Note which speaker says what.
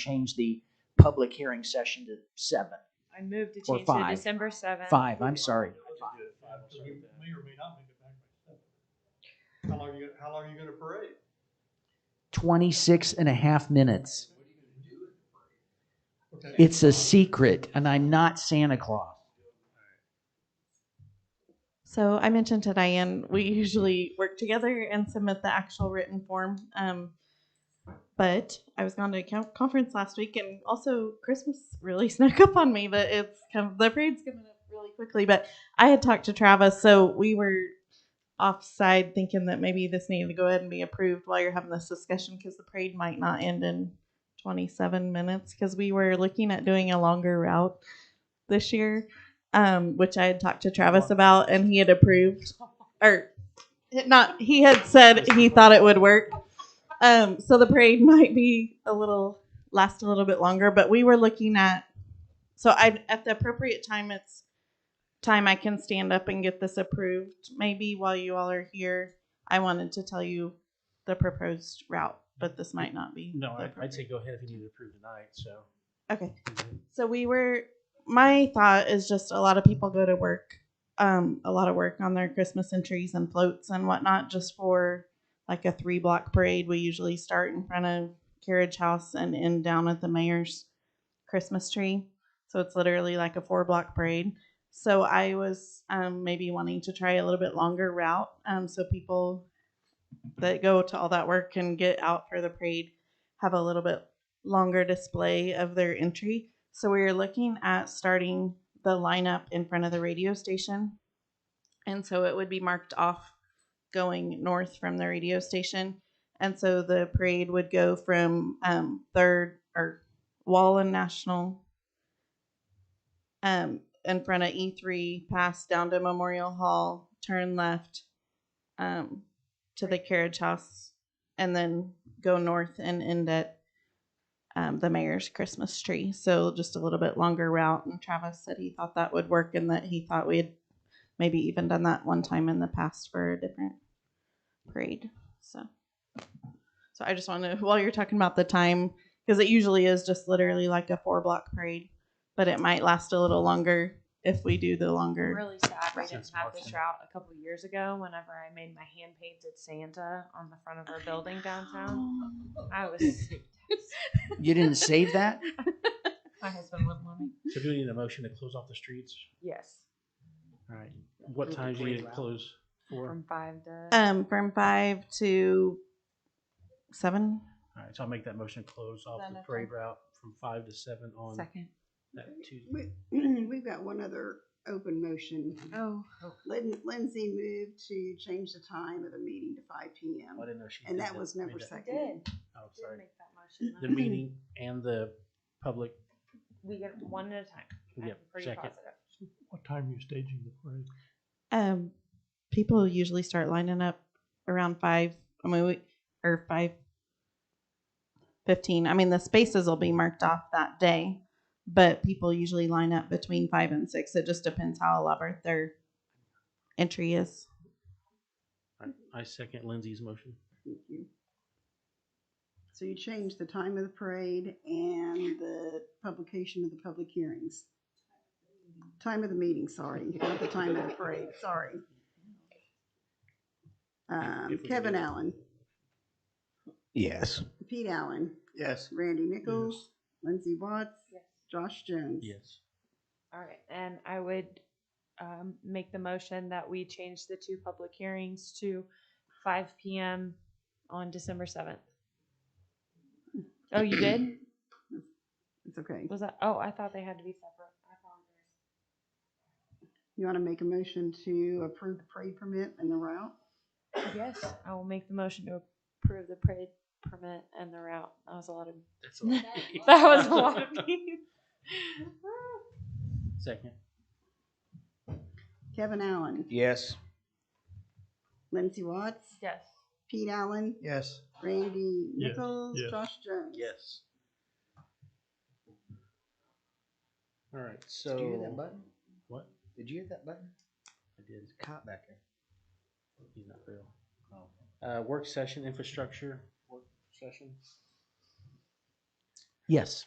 Speaker 1: change the public hearing session to seven,
Speaker 2: I moved to
Speaker 1: Or
Speaker 2: change to
Speaker 1: five.
Speaker 2: December seventh.
Speaker 1: five, I'm sorry.
Speaker 3: So you may or may not make it back by seven. How long you, how long are you gonna parade?
Speaker 1: 26 and a half minutes.
Speaker 3: Okay.
Speaker 1: It's a secret and I'm not Santa Claus.
Speaker 4: So I mentioned to Diane, we usually work together and submit the actual written form. Um, but I was gone to a co- conference last week, and also Christmas really snuck up on me. But it's kind of the parade's coming up really quickly. But I had talked to Travis, so we were offside thinking that maybe this needed to go ahead and be approved while you're having this discussion because the parade might not end in 27 minutes because we were looking at doing a longer route this year um, which I had talked to Travis about, and he had approved, or not. He had said he thought it would work. Um, so the parade might be a little last a little bit longer, but we were looking at. So I at the appropriate time, it's time I can stand up and get this approved. Maybe while you all are here, I wanted to tell you the proposed route, but this might not be.
Speaker 5: No,
Speaker 4: the
Speaker 5: I- I'd say
Speaker 4: appropriate-
Speaker 5: go ahead if you need to approve tonight, so. Mm-hmm.
Speaker 4: Okay. So we were. My thought is just a lot of people go to work, um, a lot of work on their Christmas entries and floats and whatnot, just for like a three block parade. We usually start in front of Carriage House and end down at the mayor's Christmas tree. So it's literally like a four block parade. So I was um, maybe wanting to try a little bit longer route, um, so people that go to all that work and get out for the parade have a little bit longer display of their entry. So we are looking at starting the lineup in front of the radio station. And so it would be marked off going north from the radio station. And so the parade would go from um, third or Wall and National um, in front of E3, pass down to Memorial Hall, turn left um, to the carriage house, and then go north and end at um, the mayor's Christmas tree. So just a little bit longer route. And Travis said he thought that would work and that he thought we had maybe even done that one time in the past for a different parade. So, so I just want to, while you're talking about the time, because it usually is just literally like a four block parade, but it might last a little longer if we do the
Speaker 2: I'm
Speaker 4: longer.
Speaker 2: really sad we didn't
Speaker 5: Since
Speaker 2: have this
Speaker 5: March.
Speaker 2: route a couple years ago. Whenever I made my hand painted Santa on the front of our building downtown,
Speaker 4: Um,
Speaker 2: I was
Speaker 1: You didn't save that?
Speaker 2: my husband wouldn't let me.
Speaker 5: So do we need a motion to close off the streets?
Speaker 2: Yes,
Speaker 5: All right. What
Speaker 1: Approve the
Speaker 5: times do you need
Speaker 1: parade
Speaker 5: to
Speaker 1: route.
Speaker 5: close for?
Speaker 2: from five to.
Speaker 4: Um, from five to seven.
Speaker 5: All right, so I'll make that motion to close off
Speaker 4: Then
Speaker 5: the
Speaker 4: that's
Speaker 5: parade route from five to seven on
Speaker 2: Second.
Speaker 5: that Tuesday.
Speaker 6: We, we've got one other open motion.
Speaker 2: Oh,
Speaker 6: Lin- Lindsay moved to change the time of the meeting to five P
Speaker 5: Oh, I
Speaker 6: M.
Speaker 5: didn't know she.
Speaker 6: And
Speaker 5: did
Speaker 6: that was never
Speaker 5: Read that.
Speaker 2: I
Speaker 6: seconded.
Speaker 2: did.
Speaker 5: Oh,
Speaker 2: Did
Speaker 5: sorry.
Speaker 2: make that motion.
Speaker 5: The
Speaker 2: huh?
Speaker 5: meeting and the public,
Speaker 2: We get one at a time. I'm
Speaker 5: yep,
Speaker 2: pretty
Speaker 5: second.
Speaker 2: positive.
Speaker 3: What time are you staging the parade?
Speaker 4: Um, people usually start lining up around five. I mean, we, or five fifteen. I mean, the spaces will be marked off that day, but people usually line up between five and six. It just depends how elaborate their entry is.
Speaker 5: I- I second Lindsay's motion.
Speaker 6: Thank you. So you changed the time of the parade and the publication of the public hearings. Time of the meeting, sorry, not the time of the parade, sorry. Um,
Speaker 5: if we can
Speaker 6: Kevin
Speaker 5: do that.
Speaker 6: Allen,
Speaker 7: Yes.
Speaker 6: Pete Allen,
Speaker 7: Yes.
Speaker 6: Randy Nichols, Lindsay Watts,
Speaker 2: Yes.
Speaker 6: Josh Jones.
Speaker 5: Yes.
Speaker 2: All right, and I would um, make the motion that we change the two public hearings to five PM on December seventh. Oh, you did?
Speaker 6: It's okay.
Speaker 2: Was that, oh, I thought they had to be separate. I apologize.
Speaker 6: You want to make a motion to approve the parade permit and the route?
Speaker 2: Yes, I will make the motion to approve the parade permit and the route. That was a lot of,
Speaker 5: That's
Speaker 2: that was a lot of me.
Speaker 5: Second.
Speaker 6: Kevin Allen,
Speaker 7: Yes.
Speaker 6: Lindsey Watts,
Speaker 2: Yes.
Speaker 6: Pete Allen,
Speaker 7: Yes.
Speaker 6: Randy
Speaker 3: Yes,
Speaker 6: Nichols,
Speaker 3: yes.
Speaker 6: Josh Jones.
Speaker 7: Yes.
Speaker 5: All right, so.
Speaker 7: Did you hear that button?
Speaker 5: What?
Speaker 7: Did you hear that button?
Speaker 5: I did.
Speaker 7: Cop back there.
Speaker 5: He's not real. Uh, work session, infrastructure, work session.
Speaker 1: Yes.